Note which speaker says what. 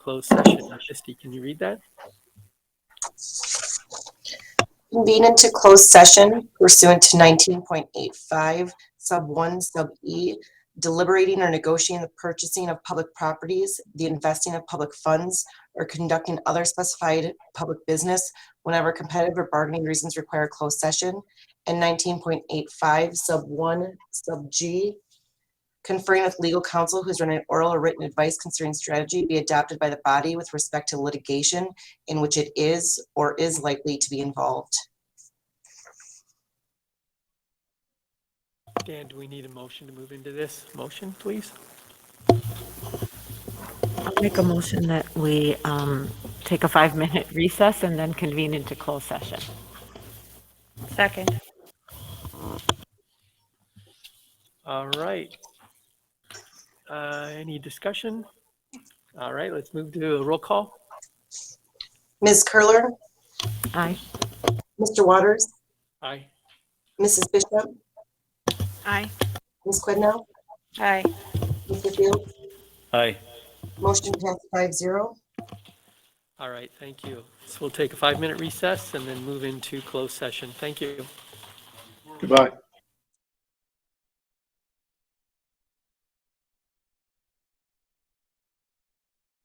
Speaker 1: closed session. Misty, can you read that?
Speaker 2: Convene into closed session pursuant to nineteen point eight five, sub one, sub E, deliberating or negotiating the purchasing of public properties, the investing of public funds, or conducting other specified public business whenever competitive or bargaining reasons require closed session, and nineteen point eight five, sub one, sub G, conferring with legal counsel who's rendered oral or written advice concerning strategy be adopted by the body with respect to litigation in which it is or is likely to be involved.
Speaker 1: Dan, do we need a motion to move into this? Motion, please?
Speaker 3: I'll make a motion that we um, take a five-minute recess and then convene into closed session.
Speaker 4: Second.
Speaker 1: All right. Uh, Any discussion? All right, let's move to a roll call.
Speaker 2: Ms. Curler,
Speaker 3: Aye.
Speaker 2: Mr. Waters,
Speaker 1: Aye.
Speaker 2: Mrs. Bishop,
Speaker 4: Aye.
Speaker 2: Ms. Quidnow,
Speaker 4: Aye.
Speaker 2: Mr. Fields,
Speaker 5: Aye.
Speaker 2: motion passed five zero.
Speaker 1: All right, thank you. So we'll take a five-minute recess and then move into closed session. Thank you.
Speaker 6: Goodbye.